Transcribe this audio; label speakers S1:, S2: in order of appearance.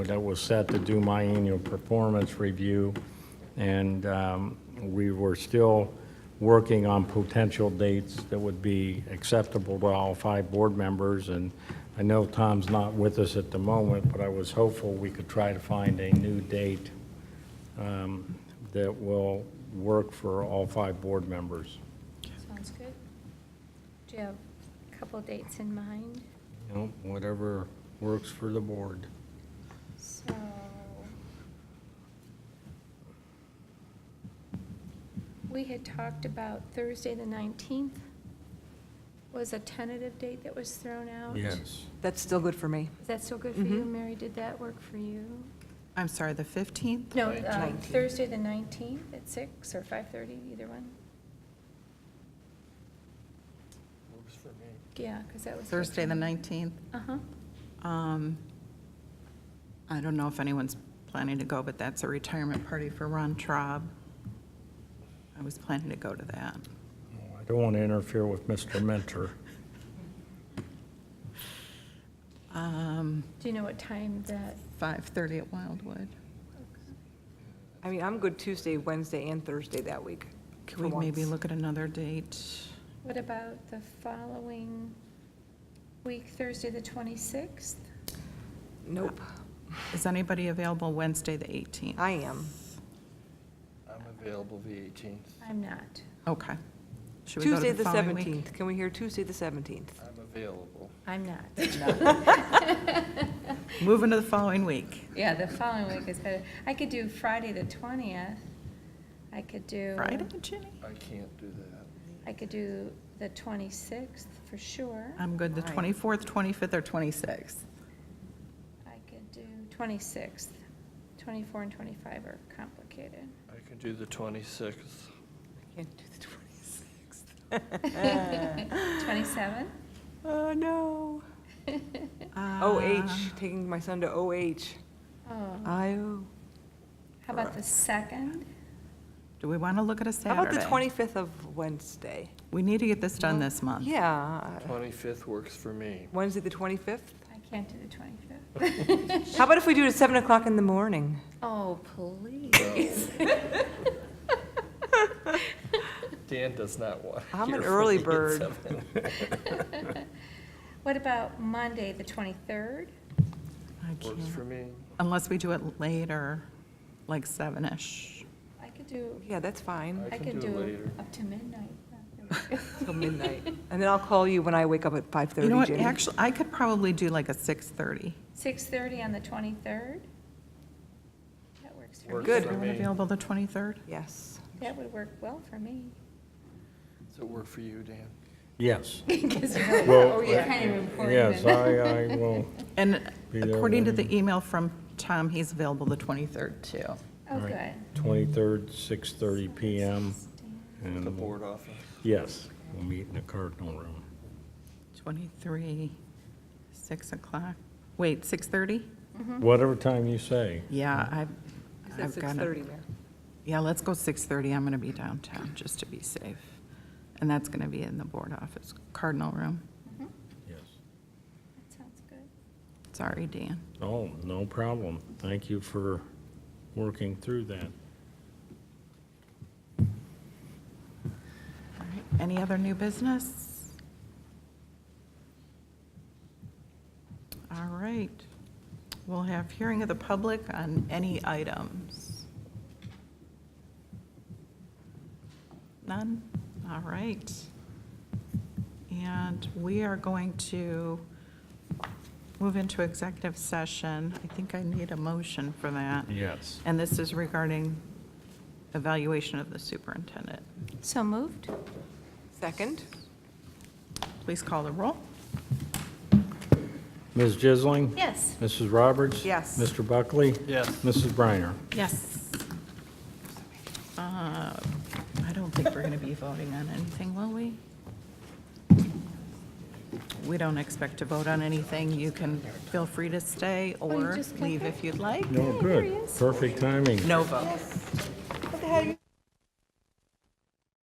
S1: that was set to do my annual performance review, and um, we were still working on potential dates that would be acceptable to all five board members, and I know Tom's not with us at the moment, but I was hopeful we could try to find a new date um, that will work for all five board members.
S2: Sounds good. Do you have a couple dates in mind?
S1: You know, whatever works for the board.
S2: So, we had talked about Thursday, the 19th was a tentative date that was thrown out.
S1: Yes.
S3: That's still good for me.
S2: Is that still good for you, Mary? Did that work for you?
S4: I'm sorry, the 15th?
S2: No,
S4: Right.
S2: um, Thursday, the 19th at 6 or 5:30, either one?
S5: Works for me.
S2: Yeah, because that was.
S4: Thursday, the 19th.
S2: Uh-huh.
S4: Um, I don't know if anyone's planning to go, but that's a retirement party for Ron Traub. I was planning to go to that.
S1: I don't want to interfere with Mr. Mentor.
S4: Um,
S2: Do you know what time that?
S4: 5:30 at Wildwood.
S3: I mean, I'm good Tuesday, Wednesday, and Thursday that week.
S4: Can
S3: for
S4: we maybe
S3: once.
S4: look at another date?
S2: What about the following week, Thursday, the 26th?
S3: Nope,
S4: Is anybody available Wednesday, the 18th?
S3: I am.
S5: I'm available the 18th.
S2: I'm not.
S4: Okay. Should we go to
S3: Tuesday, the
S4: following week?
S3: 17th. Can we hear Tuesday, the 17th?
S5: I'm available.
S2: I'm not.
S4: Moving to the following week,
S2: Yeah, the following week is better. I could do Friday, the 20th. I could
S3: Uh,
S2: do.
S4: Friday, Jenny?
S5: I can't do that.
S2: I could do the 26th for sure.
S3: Um.
S4: I'm good, the
S3: Fine.
S4: 24th, 25th, or 26th.
S2: I could do 26th. 24 and 25 are complicated.
S5: I can do the 26th.
S3: Can't do the 26th.
S2: 27?
S3: Oh, no.
S4: Uh,
S3: OH, taking my son to OH.
S2: Oh, how
S3: I, how
S2: about the 2nd?
S4: Do we want to look at a Saturday?
S3: about the 25th of Wednesday?
S4: We need to get this done this month.
S3: Yeah,
S5: 25th works for me.
S3: Wednesday, the 25th?
S2: I can't do the 25th.
S3: How about if we do it at 7 o'clock in the morning?
S2: Oh, please.
S5: Dan does not want. to
S3: I'm
S5: hear
S3: an
S5: from
S3: early
S5: me at
S3: bird.
S5: seven.
S2: What about Monday, the 23rd?
S4: I
S5: Works for
S4: can't-
S5: me.
S4: Unless we do it later, like seven-ish.
S2: I could do,
S3: Yeah, that's fine,
S5: I
S2: I could
S5: can do
S2: do
S5: later.
S2: up to midnight.
S3: till midnight. And then I'll call you when I wake up at 5:30, Jenny.
S4: You know what, actually, I could probably do like a 6:30.
S2: 6:30 on the 23rd? That works for me.
S5: Works
S3: Good.
S5: for
S4: Everyone
S5: me.
S4: available the 23rd?
S3: Yes.
S2: That would work well for me.
S5: Does it work for you, Dan?
S1: Yes.
S2: Because you know,
S1: Well,
S2: it's kind of
S1: Yes,
S2: important.
S1: I, I will.
S4: And
S1: Be there
S4: according to
S1: when-
S4: the email from Tom, he's available the 23rd too.
S2: Oh,
S1: Right.
S2: good.
S1: 23rd, 6:30 PM.
S5: At
S1: and
S5: The board office.
S1: Yes, we'll meet in the Cardinal Room.
S4: 23, 6 o'clock. Wait, 6:30?
S1: Whatever time you say.
S4: Yeah, I've,
S3: Is that
S4: I've got
S3: 6:30,
S4: it.
S3: Mayor?
S4: Yeah, let's go 6:30. I'm going to be downtown, just to be safe. And that's going to be in the board office, Cardinal Room.
S1: Yes.
S2: Mm-hmm. That sounds good.
S4: Sorry, Dan.
S1: Oh, no problem. Thank you for working through that.
S4: All right. Any other new business? All right. We'll have hearing of the public on any items. None? All right. And we are going to move into executive session. I think I need a motion for that.
S1: Yes.
S4: And this is regarding evaluation of the superintendent.
S2: So moved?
S3: Second?
S4: Please call the roll.
S1: Ms. Jisling?
S2: Yes.
S1: Mrs. Roberts?
S3: Yes.
S1: Mr. Buckley?
S5: Yes.
S1: Mrs. Briner?
S4: Yes. Uh, I don't think we're going to be voting on anything, will we? We don't expect to vote on anything. You can feel free to stay
S2: Oh, you
S4: or
S2: just got
S4: leave
S2: that?
S4: if you'd like.
S1: No, good. Perfect Oh, timing.
S4: No vote.
S3: What the heck?